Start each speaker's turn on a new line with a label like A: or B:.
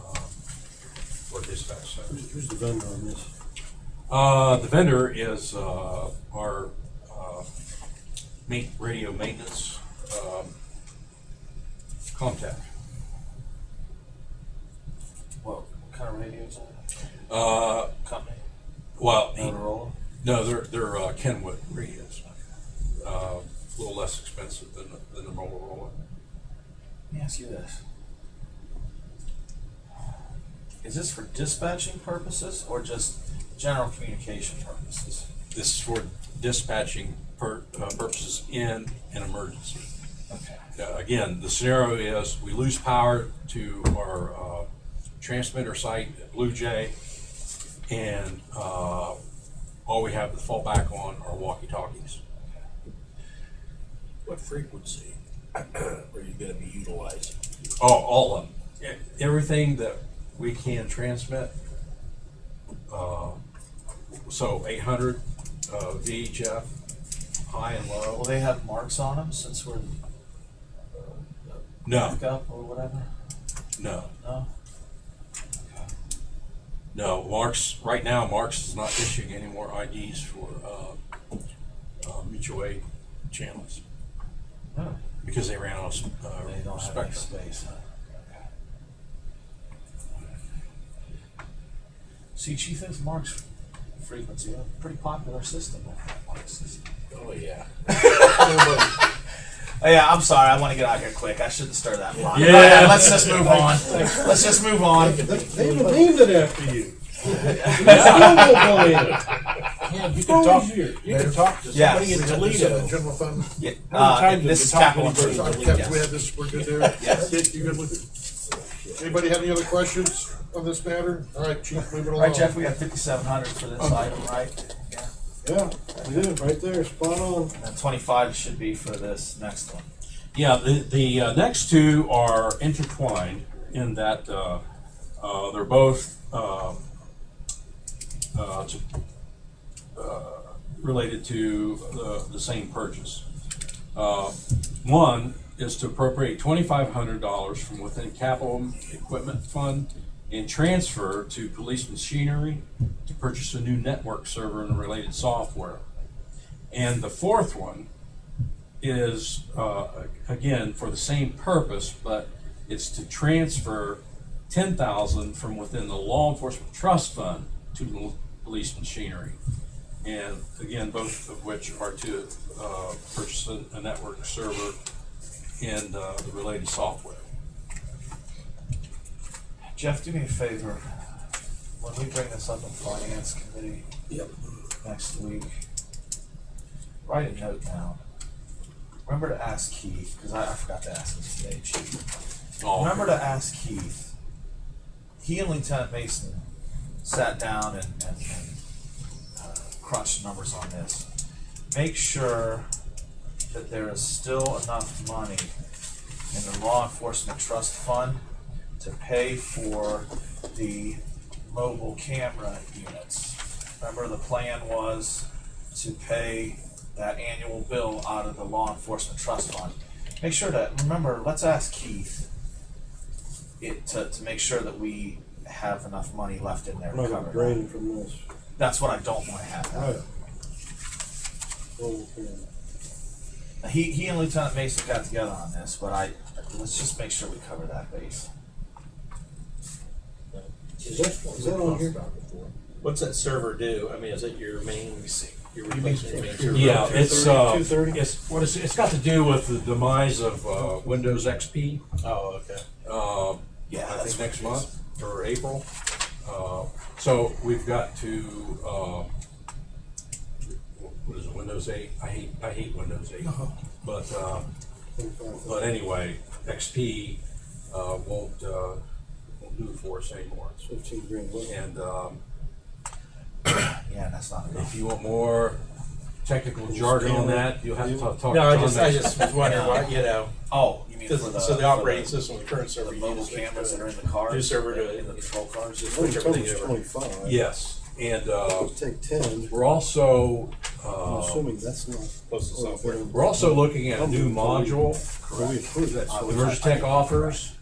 A: um, dispatch center.
B: Who's, who's the vendor on this?
A: Uh, the vendor is, uh, our, uh, ma- radio maintenance, um, contact.
C: What, what kind of radio is that?
A: Uh,
C: Company?
A: well, he-
C: Motorola?
A: no, they're, they're uh, Kenwood radios. Uh, a little less expensive than, the- than the Motorola.
C: Let me ask you this. Is this for dispatching purposes or just general communication purposes?
A: This is for dispatching per, uh, purposes in an emergency.
C: Okay.
A: Uh, again, the scenario is we lose power to our uh, transmitter site at Blue Jay, and uh, all we have to fall back on are walkie-talkies.
D: What frequency are you gonna be utilizing?
A: Oh, all of them. E- Everything that we can transmit. Uh, So 800 uh, VHF, high and
C: Will
A: low.
C: they have marks on them since we're
A: No,
C: back up or whatever?
A: no,
C: No?
A: no. Marks, right now, Marks is not issuing any more IDs for uh, uh, mutual aid channels
C: No.
A: because they ran out of
C: They
A: uh,
C: don't have
A: spectrum.
C: any space, huh? Okay. See, Chief, that's Mark's frequency, a pretty popular system. Mark's system.
D: Oh, yeah.
C: Oh, yeah, I'm sorry. I want to get out here quick. I shouldn't stir that pot.
A: Yeah.
C: Okay, let's just move on. Let's just move on.
B: They, they named it after you. They still don't believe it.
D: Yeah, you
B: Who
D: can talk,
B: is you?
D: you can talk to
C: Yeah.
D: somebody in
E: The
D: Toledo.
E: uh, general fund.
C: Yeah,
D: How many
C: uh,
D: times have
C: this
D: you
C: is
D: talked to
C: capital
D: anybody?
C: improvement.
E: Sorry, Caps,
C: yes.
E: we had this, we're good there.
C: Yes.
E: Dick, you good with it? Anybody have any other questions on this matter? All right, chief, move it
C: All
E: along.
C: right, Jeff, we got 5,700 for this item, right? Yeah.
B: Yeah, we did, right there, spot on.
C: And then 25 should be for this next one.
A: Yeah, the, the uh, next two are intertwined in that uh, uh, they're both um, uh, to- uh, related to the, the same purchase. Uh, One is to appropriate twenty-five hundred dollars from within capital equipment fund and transfer to police machinery to purchase a new network server and related software. And the fourth one is, uh, again, for the same purpose, but it's to transfer ten thousand from within the law enforcement trust fund to the police machinery. And again, both of which are to, uh, purchase a, a network server and, uh, the related software.
C: Jeff, do me a favor. When we bring this up in finance committee
D: Yep.
C: next week, write a note down. Remember to ask Keith, because I, I forgot to ask him today, Chief.
A: Oh,
C: Remember to ask Keith. He and Lieutenant Mason sat down and, and, and uh, crunched numbers on this. Make sure that there is still enough money in the law enforcement trust fund to pay for the mobile camera units. Remember, the plan was to pay that annual bill out of the law enforcement trust fund. Make sure to, remember, let's ask Keith it, to, to make sure that we have enough money left in there
B: I'm
C: to
B: not gonna
C: cover it.
B: drain from this.
C: That's what I don't wanna have happen.
B: Right. Okay.
C: He, he and Lieutenant Mason got together on this, but I, let's just make sure we cover that base.
B: Is that, is that on here?
F: What's that server do? I mean, is it your main, your
B: You mean-
F: replacement main server?
A: yeah, it's, uh,
B: 230?
A: it's, what is, it? it's got to do with the demise of, uh, Windows XP.
F: Oh, okay.
A: uh,
C: Yeah,
A: I
C: that's
A: think next month or April. Uh, So we've got to, uh, what is it, Windows 8? I hate, I hate Windows 8.
C: Uh-huh.
A: But, uh, but anyway, XP uh, won't, uh, won't do it for us anymore.
B: Fifteen grand.
A: And um,
C: Yeah, that's not enough.
A: if you want more technical jargon on that, you'll have to talk to John.
F: No, I just, I
A: next-
F: just was wondering why, you know,
C: Oh, you mean for
F: 'cause-
C: the.
F: so
C: for
F: the operating system, the current
C: The
F: server, you
C: mobile
F: just make
C: cameras that
F: sure-
C: are in the cars.
F: New server to-
C: In the patrol cars.
F: just
B: Well,
F: switch
B: you told
F: everything
B: us
F: over.
B: twenty-five.
A: Yes, and uh,
B: Take ten,
A: we're also,
B: I'm
A: uh,
B: assuming that's not.
F: Close to software.
A: we're also looking at a new module
B: Correct.
A: that Emergitech offers,